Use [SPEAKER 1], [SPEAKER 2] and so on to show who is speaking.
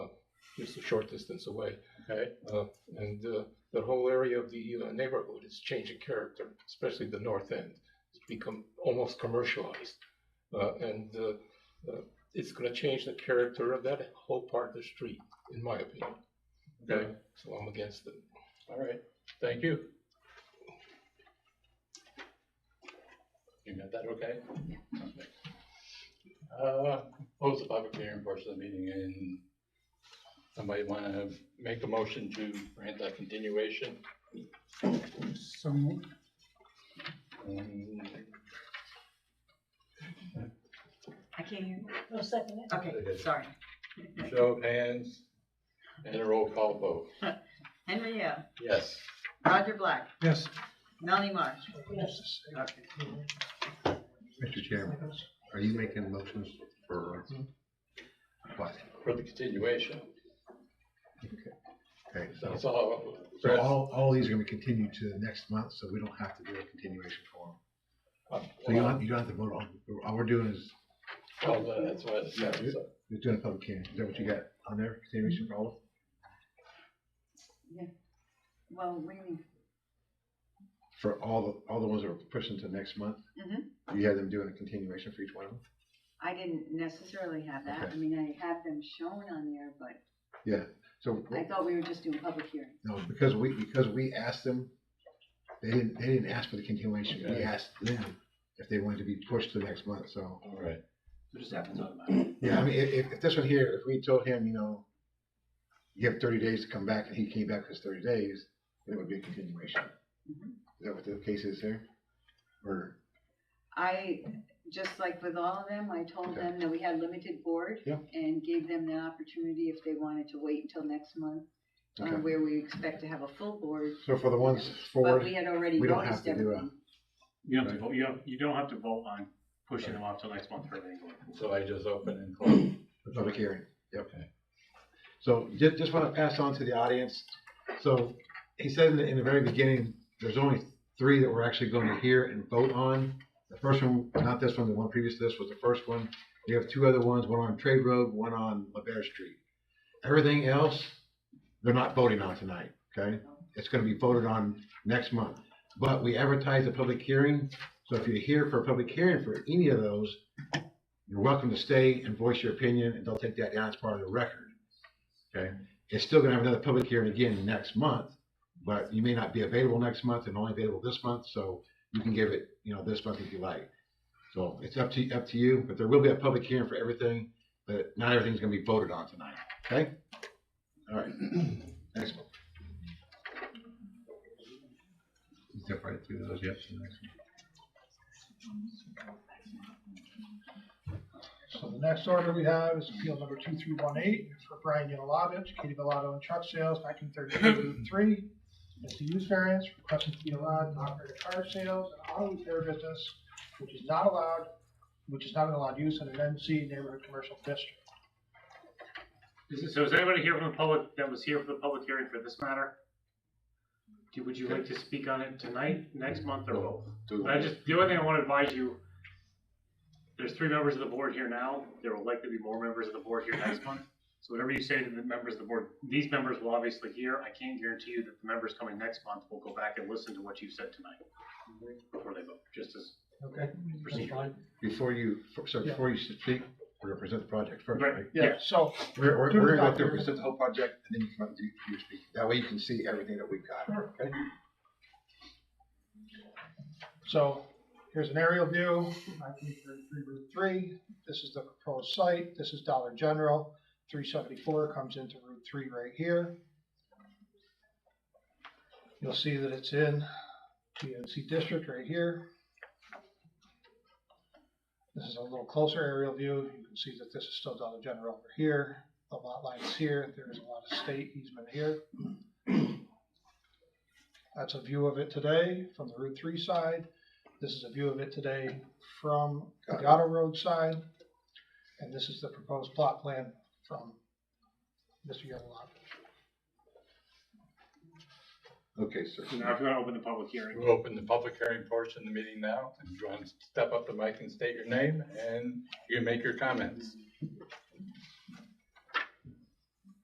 [SPEAKER 1] just a short distance away.
[SPEAKER 2] Okay.
[SPEAKER 1] Uh, and uh, the whole area of the uh, neighborhood is changing character, especially the north end. It's become almost commercialized, uh, and uh, uh, it's going to change the character of that whole part of the street, in my opinion.
[SPEAKER 2] Okay.
[SPEAKER 1] So I'm against it.
[SPEAKER 2] All right. Thank you. You got that okay? Okay. Uh, close the public hearing portion of the meeting and somebody want to make a motion to grant that continuation?
[SPEAKER 3] So moved.
[SPEAKER 2] Um,
[SPEAKER 4] I can't hear.
[SPEAKER 5] No second it.
[SPEAKER 4] you. Okay, sorry.
[SPEAKER 2] Show of hands and a roll call vote.
[SPEAKER 4] Henry Hale,
[SPEAKER 2] Yes.
[SPEAKER 4] Roger Black,
[SPEAKER 3] Yes.
[SPEAKER 4] Melanie Marsh.
[SPEAKER 5] Yes.
[SPEAKER 4] Okay.
[SPEAKER 6] Mr. Chairman, are you making motions for what?
[SPEAKER 2] For the continuation.
[SPEAKER 6] Okay, so,
[SPEAKER 2] That's all.
[SPEAKER 6] so all, all these are gonna be continued to the next month, so we don't have to do a continuation form. So you don't, have- you don't have to vote on, all we're doing is,
[SPEAKER 2] Well, Oh, That's what it
[SPEAKER 6] Yeah,
[SPEAKER 2] says.
[SPEAKER 6] we're doing a public hearing. Is that what you got on there, continuation for all of them?
[SPEAKER 4] Well, we,
[SPEAKER 6] For all, the all the ones that are pushing to next month?
[SPEAKER 4] Mhm.
[SPEAKER 6] Do you have them doing a continuation for each one of them?
[SPEAKER 4] I didn't necessarily have that. I
[SPEAKER 6] Okay.
[SPEAKER 4] mean, I have them shown on there, but
[SPEAKER 6] So,
[SPEAKER 4] I thought we were just doing public hearing.
[SPEAKER 6] no, because we, because we asked them, they didn't, they didn't ask for the continuation. We
[SPEAKER 2] Okay.
[SPEAKER 6] asked them if they wanted to be pushed to next month, so.
[SPEAKER 2] All right.
[SPEAKER 3] Just happens automatically.
[SPEAKER 6] Yeah, I mean, if, if- if this one here, if we told him, you know, you have thirty days to come back, and he came back for his thirty days, then it would be a continuation.
[SPEAKER 4] Mhm.
[SPEAKER 6] Is that what the case is here? Or,
[SPEAKER 4] I, just like with all of them, I told
[SPEAKER 6] Okay.
[SPEAKER 4] them that we had limited board
[SPEAKER 6] Yeah.
[SPEAKER 4] and gave them the opportunity if they wanted to wait until next month, uh,
[SPEAKER 6] okay,
[SPEAKER 4] where we expect to have a full board.
[SPEAKER 6] so for the ones
[SPEAKER 4] But
[SPEAKER 6] forward,
[SPEAKER 4] we had already
[SPEAKER 6] we don't
[SPEAKER 4] noticed
[SPEAKER 6] have to do a-
[SPEAKER 4] everything.
[SPEAKER 3] You don't have to vote, you don't, you don't have to vote on pushing them off till next month for everything.
[SPEAKER 2] So I just open and close.
[SPEAKER 6] the public hearing, yep.
[SPEAKER 2] Okay.
[SPEAKER 6] So just, just wanna pass on to the audience, so he said in the, in the very beginning, there's only three that we're actually gonna hear and vote on. The first one, not this one, the one previous to this was the first one, we have two other ones, one on Trade Road, one on LaBear Street. Everything else, they're not voting on tonight, okay? It's gonna be voted on next month. But we advertise a public hearing, so if you're here for a public hearing for any of those, you're welcome to stay and voice your opinion, and they'll take that down as part of the record. Okay? It's still gonna have another public hearing again next month, but you may not be available next month and only available this month, so you can give it, you know, this month if you like. So it's up to, up to you, but there will be a public hearing for everything, but not everything's gonna be voted on tonight, okay? All right, next one. Step right through those, yep, the next
[SPEAKER 5] So the next order we have is appeal number two three one eight for Brian Yalalovich, Katie Velato and Truck Sales, nineteen thirty-two Route three. It's a use variance requesting to be allowed to operate a car sales and auto repair business, which is not allowed, which is not an allowed use in an NC neighborhood commercial district.
[SPEAKER 3] Is it- So is anybody here from the public that was here for the public hearing for this matter? Do- Would you like to speak on it tonight, next month, or both?
[SPEAKER 2] Do-
[SPEAKER 3] I just, the only thing I want to advise you, there's three members of the board here now, there will likely be more members of the board here next month. So whatever you say to the members of the board, these members will obviously hear, I can't guarantee you that the members coming next month will go back and listen to what you said tonight. Before they vote, just as,
[SPEAKER 5] Okay.
[SPEAKER 3] Proceed.
[SPEAKER 6] Before you, so before you speak, we're gonna present the project first,
[SPEAKER 3] Right.
[SPEAKER 6] right?
[SPEAKER 5] Yeah, so,
[SPEAKER 6] We're, we're,
[SPEAKER 5] Do
[SPEAKER 6] we're gonna
[SPEAKER 5] the
[SPEAKER 6] go through,
[SPEAKER 5] document.
[SPEAKER 6] present the whole project, and then you can, you, you speak, that way you can see everything that we've got, okay?
[SPEAKER 5] so here's an aerial view, nineteen thirty-three Route three. This is the proposed site. This is Dollar General. Three seventy-four comes into Route three right here. You'll see that it's in the NC district right here. This is a little closer aerial view. You can see that this is still Dollar General over here. The lot line is here. There is a lot of state easement here. That's a view of it today from the Route three side. This is a view of it today from the Gatto Road side. And this is the proposed plot plan from Mr. Yellow.
[SPEAKER 6] Okay, sir.
[SPEAKER 3] now if you want to open the public hearing.
[SPEAKER 2] We'll open the public hearing portion of the meeting now. If you want to step up to the mic and state your name, and you can make your comments.